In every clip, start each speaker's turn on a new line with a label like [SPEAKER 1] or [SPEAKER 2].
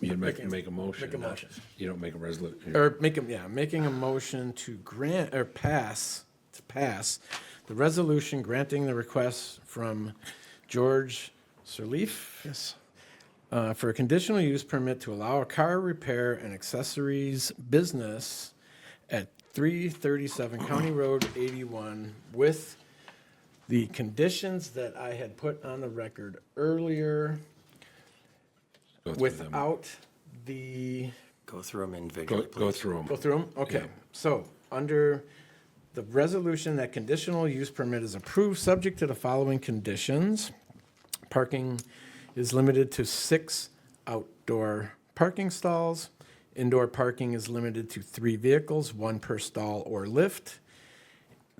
[SPEAKER 1] You'd make,
[SPEAKER 2] Making-
[SPEAKER 1] make a motion. Er,
[SPEAKER 2] make a
[SPEAKER 1] not-
[SPEAKER 2] motion.
[SPEAKER 1] You don't make a resolution.
[SPEAKER 2] or make a, yeah, making a motion to grant, or pass, to pass the resolution granting the request from George Sirleaf. Yes. Uh, for a conditional use permit to allow a car repair and accessories business at three thirty-seven County Road eighty-one with the conditions that I had put on the record earlier
[SPEAKER 1] Go through them.
[SPEAKER 2] without the
[SPEAKER 3] Go through them
[SPEAKER 1] Go,
[SPEAKER 3] individually,
[SPEAKER 1] go
[SPEAKER 3] please.
[SPEAKER 1] through
[SPEAKER 2] Go
[SPEAKER 1] them.
[SPEAKER 2] through them? Okay. So, under the resolution that conditional use permit is approved, subject to the following conditions. Parking is limited to six outdoor parking stalls. Indoor parking is limited to three vehicles, one per stall or lift.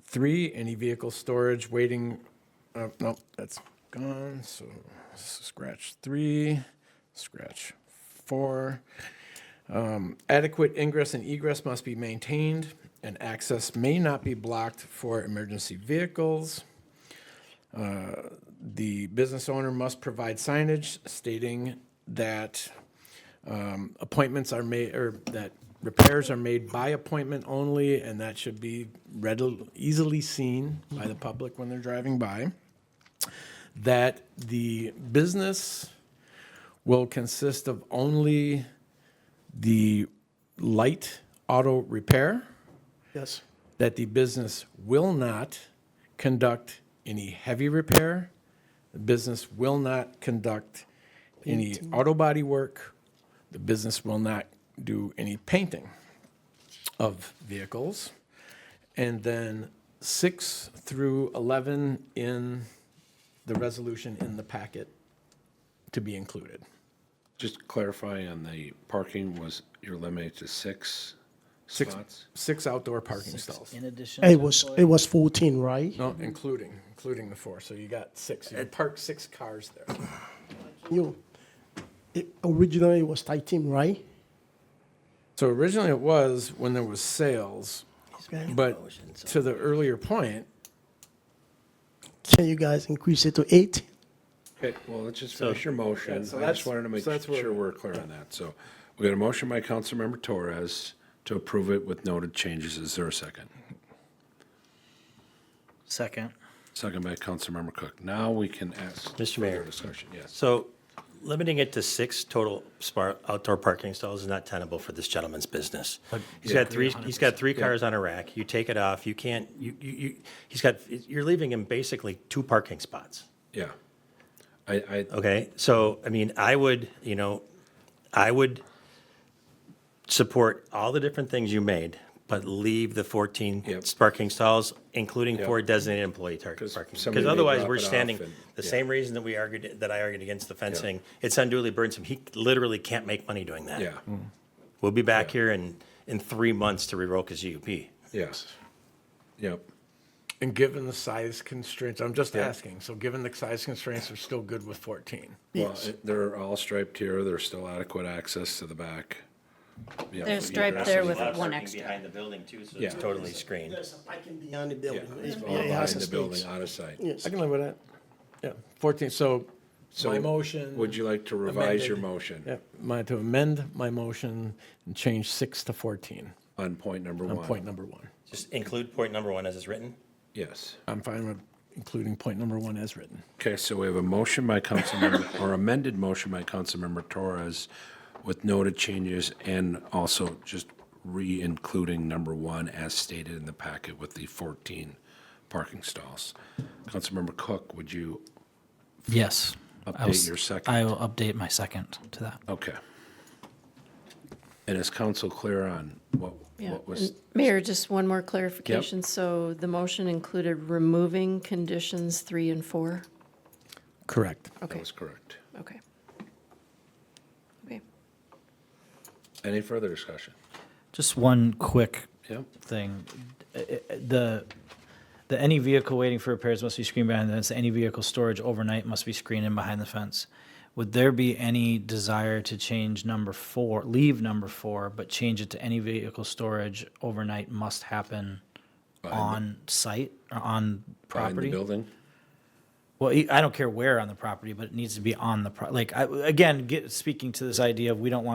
[SPEAKER 2] Three, any vehicle storage waiting, uh, no, that's gone, so scratch three, scratch four. Um, adequate ingress and egress must be maintained, and access may not be blocked for emergency vehicles. Uh, The business owner must provide signage stating that um, appointments are made, or that repairs are made by appointment only, and that should be readily, easily seen by the public when they're driving by. That the business will consist of only the light auto repair,
[SPEAKER 4] Yes.
[SPEAKER 2] that the business will not conduct any heavy repair, the business will not conduct any auto body work, the business will not do any painting of vehicles. And then six through 11 in the resolution in the packet to be included.
[SPEAKER 1] Just clarify on the parking was, you're limited to six
[SPEAKER 2] Six,
[SPEAKER 1] spots?
[SPEAKER 2] six outdoor parking stalls.
[SPEAKER 5] In addition.
[SPEAKER 4] It
[SPEAKER 5] to
[SPEAKER 4] was,
[SPEAKER 5] employee-
[SPEAKER 4] it was 14, right?
[SPEAKER 2] No, including, including the four, so you got six, you parked six cars there.
[SPEAKER 4] You, it, originally it was 13, right?
[SPEAKER 2] So originally it was when there was sales,
[SPEAKER 4] Okay.
[SPEAKER 2] but to the earlier point,
[SPEAKER 4] Can you guys increase it to eight?
[SPEAKER 1] Okay, well, let's just finish your motion. I
[SPEAKER 2] so
[SPEAKER 1] just
[SPEAKER 2] that's-
[SPEAKER 1] wanted to make
[SPEAKER 2] so that's where-
[SPEAKER 1] sure we're clear on that. So we got a motion by Councilmember Torres to approve it with noted changes. Is there a second?
[SPEAKER 5] Second.
[SPEAKER 1] Second by Councilmember Cook. Now we can ask.
[SPEAKER 3] Mr. Mayor.
[SPEAKER 1] further Discussion, yes.
[SPEAKER 3] So limiting it to six total spar outdoor parking stalls is not tenable for this gentleman's business. He's got three, he's got three cars on a rack. You take it off, you can't, you, you, you, he's got, you're leaving him basically two parking spots.
[SPEAKER 1] Yeah. I, I,
[SPEAKER 3] Okay, so, I mean, I would, you know, I would support all the different things you made, but leave the 14
[SPEAKER 1] Yep.
[SPEAKER 3] parking stalls, including
[SPEAKER 1] Yep.
[SPEAKER 3] four designated employee tar- parking.
[SPEAKER 1] 'Cause somebody
[SPEAKER 3] Because
[SPEAKER 1] may
[SPEAKER 3] otherwise,
[SPEAKER 1] drop
[SPEAKER 3] we're
[SPEAKER 1] it off
[SPEAKER 3] standing,
[SPEAKER 1] and-
[SPEAKER 3] the
[SPEAKER 1] yeah.
[SPEAKER 3] same reason that we argued, that I argued against the fencing, it's unduly burdensome. He literally can't make money doing that.
[SPEAKER 1] yeah,
[SPEAKER 3] We'll be back here in, in three months to revoke his UUP.
[SPEAKER 1] yes. Yep.
[SPEAKER 2] and given the size constraints, I'm just asking, so given the size constraints, we're still good with 14.
[SPEAKER 1] Well, it- they're all striped here. There's still adequate access to the back. Yeah,
[SPEAKER 6] They're
[SPEAKER 1] but
[SPEAKER 6] striped there with one extra.
[SPEAKER 3] Behind the building too, so
[SPEAKER 1] Yeah.
[SPEAKER 3] it's totally screened.
[SPEAKER 4] There's a parking beyond the building.
[SPEAKER 1] Yeah,
[SPEAKER 4] It-
[SPEAKER 1] it's
[SPEAKER 4] it
[SPEAKER 1] all behind
[SPEAKER 4] has a
[SPEAKER 1] the
[SPEAKER 4] space.
[SPEAKER 1] building, out of sight.
[SPEAKER 4] Yes.
[SPEAKER 2] I can live with that. Yeah, 14, so
[SPEAKER 1] So
[SPEAKER 2] my motion.
[SPEAKER 1] Would you like to revise your
[SPEAKER 2] amended.
[SPEAKER 1] motion
[SPEAKER 2] Yeah, my, to amend my motion and change six to 14
[SPEAKER 1] on point number
[SPEAKER 2] on
[SPEAKER 1] one?
[SPEAKER 2] point number one.
[SPEAKER 3] Just include point number one as it's written.
[SPEAKER 1] Yes.
[SPEAKER 2] I'm fine with including point number one as written.
[SPEAKER 1] Okay, so we have a motion by Councilmember, or amended motion by Councilmember Torres with noted changes and also just re-including number one as stated in the packet with the 14 parking stalls. Councilmember Cook, would you,
[SPEAKER 5] Yes. I will
[SPEAKER 1] Update
[SPEAKER 5] s-
[SPEAKER 1] your second.
[SPEAKER 5] I will update my second to that.
[SPEAKER 1] okay. And is council clear on what,
[SPEAKER 6] Yeah.
[SPEAKER 1] what was,
[SPEAKER 6] Mayor, just one more clarification. So the motion included removing conditions three and four?
[SPEAKER 2] Correct.
[SPEAKER 1] that
[SPEAKER 6] Okay,
[SPEAKER 1] was correct?
[SPEAKER 6] okay. Okay.
[SPEAKER 1] Any further discussion?
[SPEAKER 5] Just one quick
[SPEAKER 1] Yep,
[SPEAKER 5] thing. Uh, uh, The, the any vehicle waiting for repairs must be screened behind the fence. Any vehicle storage overnight must be screened in behind the fence. Would there be any desire to change number four, leave number four, but change it to any vehicle storage overnight must happen on site or
[SPEAKER 1] behind
[SPEAKER 5] on
[SPEAKER 1] the
[SPEAKER 5] property?
[SPEAKER 1] building?
[SPEAKER 5] Well, e- I don't care where on the property, but it needs to be on the pro, like, I, again, get, speaking to this idea of we don't want